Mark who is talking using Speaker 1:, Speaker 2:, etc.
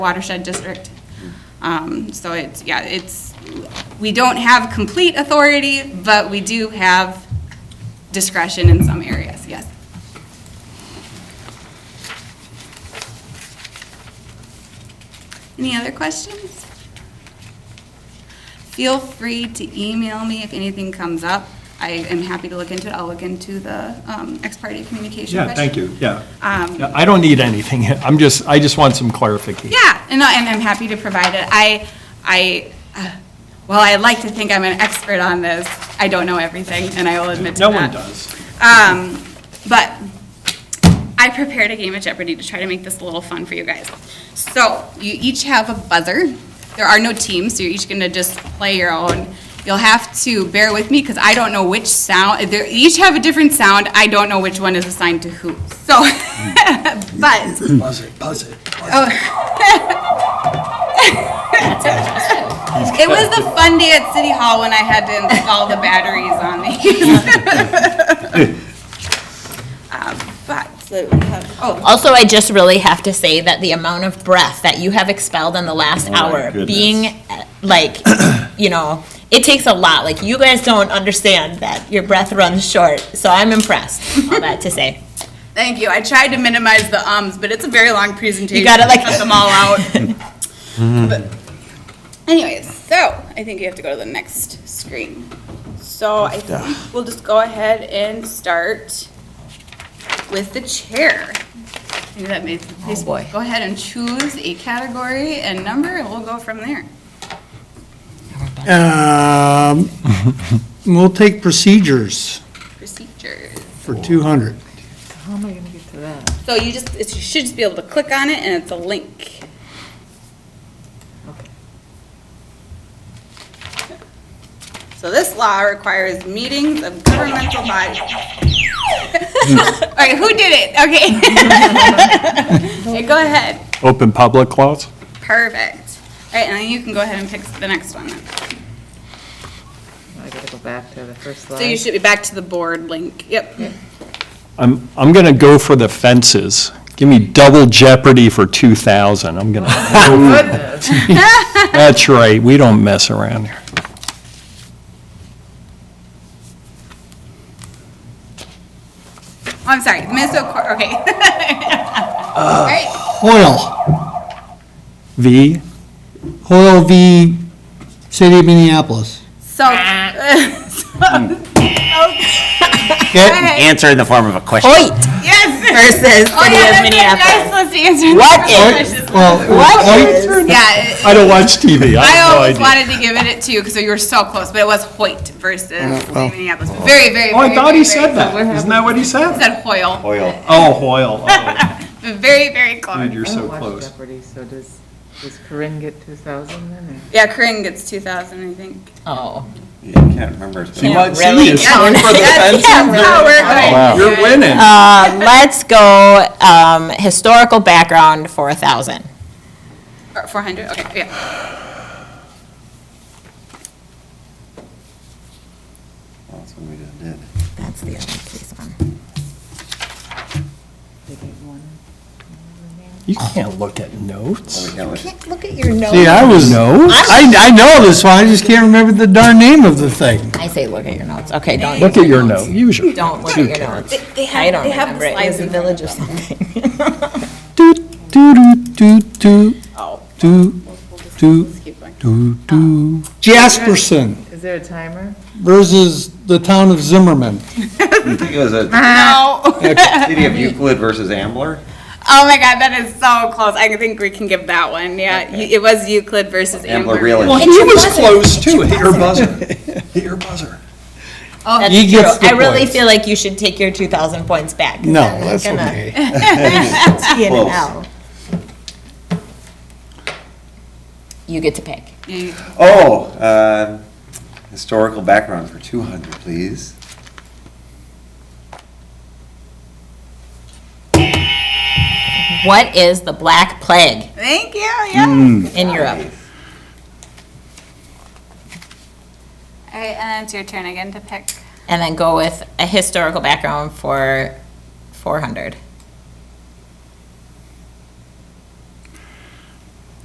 Speaker 1: watershed district. Um, So it's, yeah, it's, we don't have complete authority, but we do have discretion in some areas, yes. Any other questions? Feel free to email me if anything comes up. I am happy to look into it. I'll look into the um, ex parte communication
Speaker 2: Yeah, thank
Speaker 1: question.
Speaker 2: you, yeah.
Speaker 1: Um,
Speaker 2: Yeah, I don't need anything, I'm just, I just want some clarification.
Speaker 1: Yeah, and, I- and I'm happy to provide it. I, I, uh, well, I like to think I'm an expert on this. I don't know everything, and I will admit to
Speaker 2: No
Speaker 1: that.
Speaker 2: one does.
Speaker 1: Um, but I prepared a game of Jeopardy to try to make this a little fun for you guys. So you each have a buzzer. There are no teams, so you're each gonna just play your own. You'll have to bear with me because I don't know which sound, they each have a different sound. I don't know which one is assigned to who. So, but
Speaker 3: Hmm. Buzz it, buzz it.
Speaker 1: It was the fun day at City Hall when I had to install the batteries on these. Um, But, so we have- oh,
Speaker 4: Also, I just really have to say that the amount of breath that you have expelled in the last
Speaker 2: Oh
Speaker 4: hour, being uh, like, you know, it takes a lot. Like, you guys don't understand that your breath runs short. So I'm impressed. All that to say.
Speaker 1: thank you. I tried to minimize the ums, but it's a very long presentation.
Speaker 4: You got it like
Speaker 1: Cut them all out. But- Anyways, so I think you have to go to the next screen. So I think we'll just go ahead and start with the chair. Maybe that made,
Speaker 4: Oh,
Speaker 1: please go ahead and choose a category and number, and we'll go from there.
Speaker 3: Um, We'll take procedures
Speaker 1: Procedures.
Speaker 3: for 200.
Speaker 1: So you just, it's, you should just be able to click on it, and it's a link. So this law requires meetings of governmental bodies. All right, who did it? Okay. Okay, go ahead.
Speaker 2: Open public clause?
Speaker 1: Perfect. All right, and then you can go ahead and pick the next one. then.
Speaker 5: I gotta go back to the first slide.
Speaker 1: So you should be back to the board link. Yep.
Speaker 2: I'm, I'm going to go for the fences. Give me double jeopardy for 2,000, I'm going to. That's right, we don't mess around here.
Speaker 1: Oh, I'm sorry, Minnesota, Cor- okay. All right,
Speaker 3: Hoyle,
Speaker 2: V,
Speaker 3: Hoyle v. City of Minneapolis.
Speaker 1: so, so,
Speaker 3: Okay.
Speaker 1: okay.
Speaker 6: answer in the form of a question.
Speaker 4: Hoyt
Speaker 1: Yes.
Speaker 4: versus
Speaker 1: Oh,
Speaker 4: City
Speaker 1: yeah,
Speaker 4: of
Speaker 1: that's what I was
Speaker 4: Minneapolis.
Speaker 1: supposed to answer.
Speaker 4: What
Speaker 1: That's what I was
Speaker 3: Well,
Speaker 4: What?
Speaker 3: Hoyt-
Speaker 1: just- Yeah,
Speaker 2: I don't watch TV, I
Speaker 1: I
Speaker 2: have
Speaker 1: always
Speaker 2: no idea.
Speaker 1: wanted to give it to you because you were so close, but it was Hoyt versus
Speaker 3: well.
Speaker 1: Minneapolis. Very, very, very.
Speaker 2: Uh, Oh, I thought
Speaker 1: very,
Speaker 2: he said
Speaker 1: very-
Speaker 2: that, isn't that what he
Speaker 1: He
Speaker 2: said?
Speaker 1: Said Hoyle.
Speaker 6: Oil.
Speaker 2: Oh, Hoyle, oh,
Speaker 1: But Very, very
Speaker 2: dude,
Speaker 1: close.
Speaker 2: you're
Speaker 5: I
Speaker 2: so
Speaker 5: don't watch
Speaker 2: close.
Speaker 5: Jeopardy, so does, does Corinne get 2,000 then? or-
Speaker 1: Yeah, Corinne gets two thousand, I think.
Speaker 4: Oh.
Speaker 6: You can't remember. his name.
Speaker 2: What,
Speaker 4: really?
Speaker 2: see, it's going for the
Speaker 1: That's
Speaker 2: fences?
Speaker 1: that's how we're going.
Speaker 2: You're winning.
Speaker 4: Uh, let's go um, historical background for a thousand.
Speaker 1: Four hundred, okay, yeah.
Speaker 6: That's what we just did.
Speaker 4: That's the other case one.
Speaker 2: You can't look at notes.
Speaker 6: We can't let-
Speaker 4: Look at your
Speaker 3: See,
Speaker 4: notes.
Speaker 3: I was,
Speaker 2: Notes?
Speaker 3: I, I know this one, I just can't remember the darn name of the thing.
Speaker 4: I say look at your notes. Okay, don't.
Speaker 2: Look
Speaker 4: use
Speaker 2: at your note, use your.
Speaker 4: Don't look at your notes.
Speaker 1: They
Speaker 4: I don't
Speaker 1: have
Speaker 4: remember
Speaker 1: the
Speaker 4: it. It
Speaker 1: slides
Speaker 4: was a
Speaker 1: in front
Speaker 4: village
Speaker 1: of
Speaker 4: or something.
Speaker 3: Do, do, do, do, do, do, do, do. Jasperson
Speaker 5: Is there a timer?
Speaker 3: versus the town of Zimmerman.
Speaker 6: I think it was a
Speaker 1: No.
Speaker 6: city of Euclid versus Ambler.
Speaker 1: Oh my God, that is so close. I think we can give that one, yeah. You- It was Euclid versus
Speaker 6: Ambler
Speaker 1: Amber.
Speaker 6: really.
Speaker 2: Well, he was close too, hit your buzzer, hit your buzzer.
Speaker 4: That's
Speaker 3: He gets
Speaker 4: true.
Speaker 3: the
Speaker 4: I really
Speaker 3: points.
Speaker 4: feel like you should take your 2,000 points back.
Speaker 3: No, that's
Speaker 4: Gonna-
Speaker 3: okay.
Speaker 4: T and an
Speaker 6: Close.
Speaker 4: L. You get to pick.
Speaker 6: Oh, uh, historical background for 200, please.
Speaker 4: What is the Black Plague
Speaker 1: Thank you, yeah.
Speaker 3: Hmm.
Speaker 4: in Europe?
Speaker 1: All right, and then it's your turn again to pick.
Speaker 4: And then go with a historical background for 400.